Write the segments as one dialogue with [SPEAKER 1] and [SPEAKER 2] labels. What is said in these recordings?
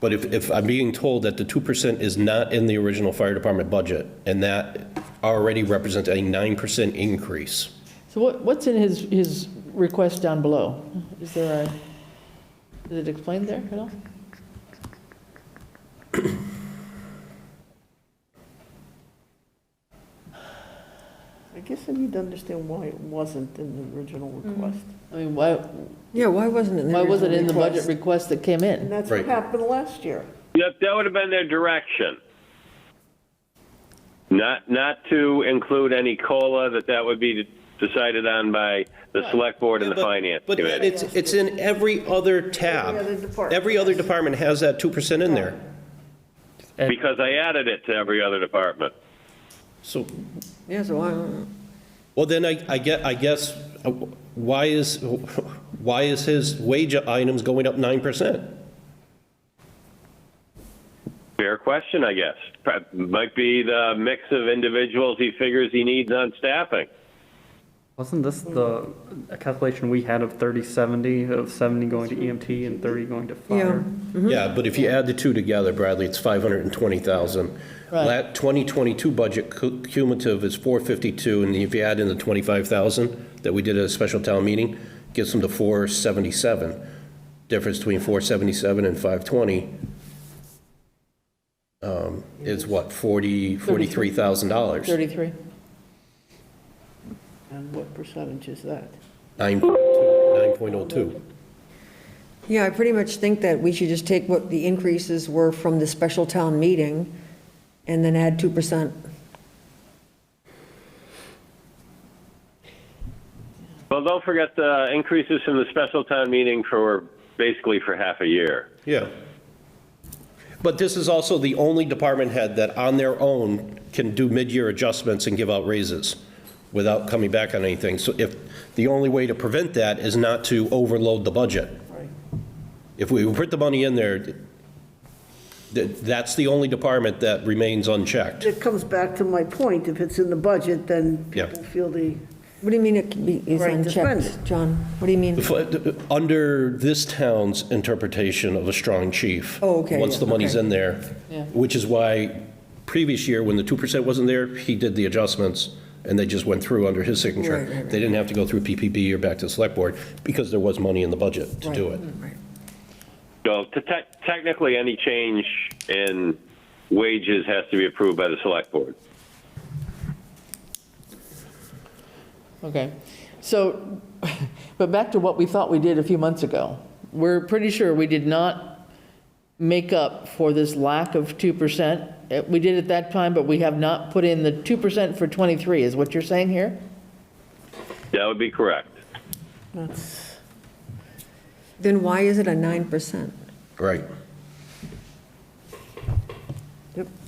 [SPEAKER 1] But if, if I'm being told that the 2% is not in the original fire department budget, and that already represents a 9% increase,
[SPEAKER 2] So what, what's in his, his request down below? Is there a, is it explained there at all?
[SPEAKER 3] I guess I need to understand why it wasn't in the original request.
[SPEAKER 2] I mean, why,
[SPEAKER 4] Yeah, why wasn't it in the
[SPEAKER 2] why was it
[SPEAKER 4] original
[SPEAKER 2] in the budget request
[SPEAKER 4] request?
[SPEAKER 2] that came in?
[SPEAKER 3] And that's what
[SPEAKER 1] Right.
[SPEAKER 3] happened last year.
[SPEAKER 5] Yep, that would have been their direction. Not, not to include any COLA, that that would be decided on by the select board and the
[SPEAKER 1] But-
[SPEAKER 5] finance
[SPEAKER 1] But
[SPEAKER 5] committee.
[SPEAKER 1] it's, it's in every other tab.
[SPEAKER 3] Every other department.
[SPEAKER 1] Every other department has that 2% in there.
[SPEAKER 5] Because I added it to every other department.
[SPEAKER 1] So,
[SPEAKER 4] Yeah, so why,
[SPEAKER 1] well, then I, I get, I guess, uh, why is, why is his wage items going up 9%?
[SPEAKER 5] Fair question, I guess. Pro- Might be the mix of individuals he figures he needs on staffing.
[SPEAKER 6] Wasn't this the calculation we had of 30, 70, of 70 going to EMT and 30 going to fire?
[SPEAKER 1] Yeah, but if you add the two together, Bradley, it's 520,000.
[SPEAKER 2] Right.
[SPEAKER 1] That 2022 budget cu- cumulative is 452, and if you add in the 25,000 that we did at a special town meeting, gets them to 477. Difference between 477 and 520 um, is what, 40, $43,000?
[SPEAKER 2] 33?
[SPEAKER 3] And what percentage is that?
[SPEAKER 1] Nine- 9.02.
[SPEAKER 4] yeah, I pretty much think that we should just take what the increases were from the special town meeting and then add 2%.
[SPEAKER 5] Well, don't forget the increases from the special town meeting for basically for half a year.
[SPEAKER 1] Yeah. But this is also the only department head that on their own can do mid-year adjustments and give out raises without coming back on anything. So if, the only way to prevent that is not to overload the budget.
[SPEAKER 3] Right.
[SPEAKER 1] If we put the money in there, th- that's the only department that remains unchecked.
[SPEAKER 3] It comes back to my point, if it's in the budget, then
[SPEAKER 1] Yeah.
[SPEAKER 3] people feel the,
[SPEAKER 4] What do you mean it can be, is
[SPEAKER 3] Right, to spend
[SPEAKER 4] unchecked,
[SPEAKER 3] it.
[SPEAKER 4] John? What do you mean?
[SPEAKER 1] F- Under this town's interpretation of a strong chief.
[SPEAKER 4] Oh, okay,
[SPEAKER 1] Once
[SPEAKER 4] yeah,
[SPEAKER 1] the money's
[SPEAKER 4] okay.
[SPEAKER 1] in there,
[SPEAKER 2] Yeah.
[SPEAKER 1] which is why previous year, when the 2% wasn't there, he did the adjustments, and they just went through under his signature.
[SPEAKER 4] Right, right, right.
[SPEAKER 1] They didn't have to go through PPP or back to the select board, because there was money in the budget to do it.
[SPEAKER 4] Right.
[SPEAKER 5] So te- te- technically, any change in wages has to be approved by the select board.
[SPEAKER 2] Okay. So, but back to what we thought we did a few months ago. We're pretty sure we did not make up for this lack of 2%. Uh, We did at that time, but we have not put in the 2% for 23, is what you're saying here?
[SPEAKER 5] That would be correct.
[SPEAKER 3] that's,
[SPEAKER 4] Then why is it a 9%?
[SPEAKER 1] Right.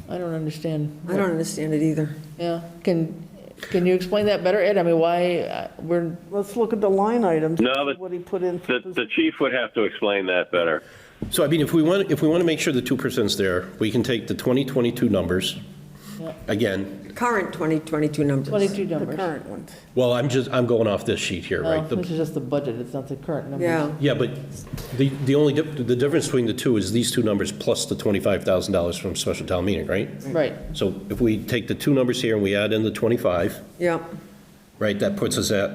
[SPEAKER 2] I don't understand.
[SPEAKER 4] I don't understand it either.
[SPEAKER 2] Yeah, can, can you explain that better, Ed? I mean, why, uh, we're,
[SPEAKER 3] let's look at the line items.
[SPEAKER 5] No, but
[SPEAKER 3] What he put in. for
[SPEAKER 5] The, the chief would have to explain that better.
[SPEAKER 1] So I mean, if we want, if we want to make sure the 2%'s there, we can take the 2022 numbers. Again,
[SPEAKER 4] Current 2022 numbers.
[SPEAKER 2] 22
[SPEAKER 3] The
[SPEAKER 2] numbers.
[SPEAKER 3] current ones.
[SPEAKER 1] well, I'm just, I'm going off this sheet here,
[SPEAKER 2] Oh,
[SPEAKER 1] right? The-
[SPEAKER 2] This is just the budget, it's not the current numbers.
[SPEAKER 4] Yeah,
[SPEAKER 1] Yeah, but the, the only, dif- the difference between the two is these two numbers plus the $25,000 from special town meeting, right?
[SPEAKER 2] Right,
[SPEAKER 1] So if we take the two numbers here and we add in the 25,
[SPEAKER 4] yeah.
[SPEAKER 1] right, that puts us at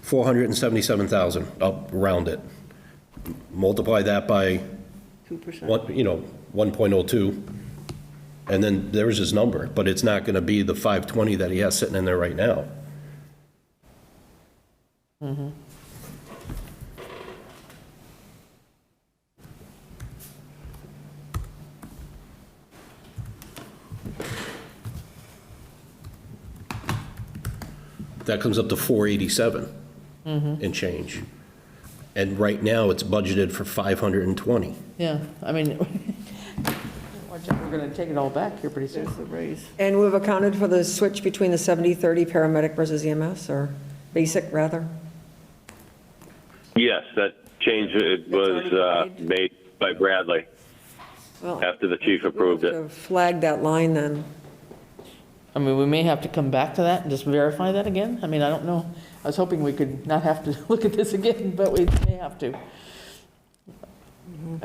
[SPEAKER 1] 477,000, I'll round it. Multiply that by,
[SPEAKER 3] Two percent.
[SPEAKER 1] one- you know, 1.02, and then there's his number, but it's not going to be the 520 that he has sitting in there right now. That comes up to 487 and change. And right now, it's budgeted for 520.
[SPEAKER 2] yeah, I mean, watch out, we're gonna take it all back here pretty soon.
[SPEAKER 3] There's the raise.
[SPEAKER 4] And we've accounted for the switch between the 70-30 paramedic versus EMS, or basic, rather?
[SPEAKER 5] Yes, that change it was uh, made by Bradley
[SPEAKER 4] Well,
[SPEAKER 5] after the chief approved it.
[SPEAKER 4] Flag that line then.
[SPEAKER 2] I mean, we may have to come back to that and just verify that again. I mean, I don't know. I was hoping we could not have to look at this again, but we may have to.